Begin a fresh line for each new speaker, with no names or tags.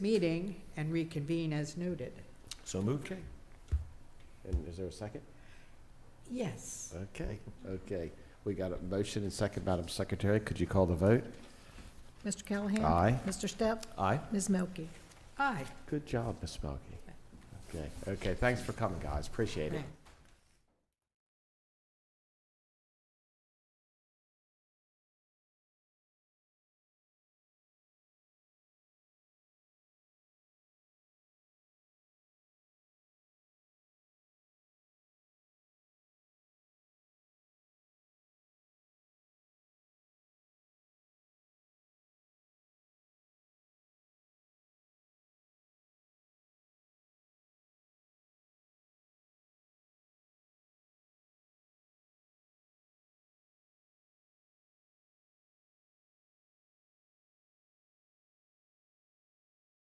meeting and reconvene as needed.
So moved.
Okay. And is there a second?
Yes.
Okay, okay. We got a motion and second, Madam Secretary. Could you call the vote?
Mr. Callahan?
Aye.
Mr. Step?
Aye.
Ms. Milky?
Aye.
Good job, Ms. Smoky. Okay, okay, thanks for coming, guys. Appreciate it.
Thanks.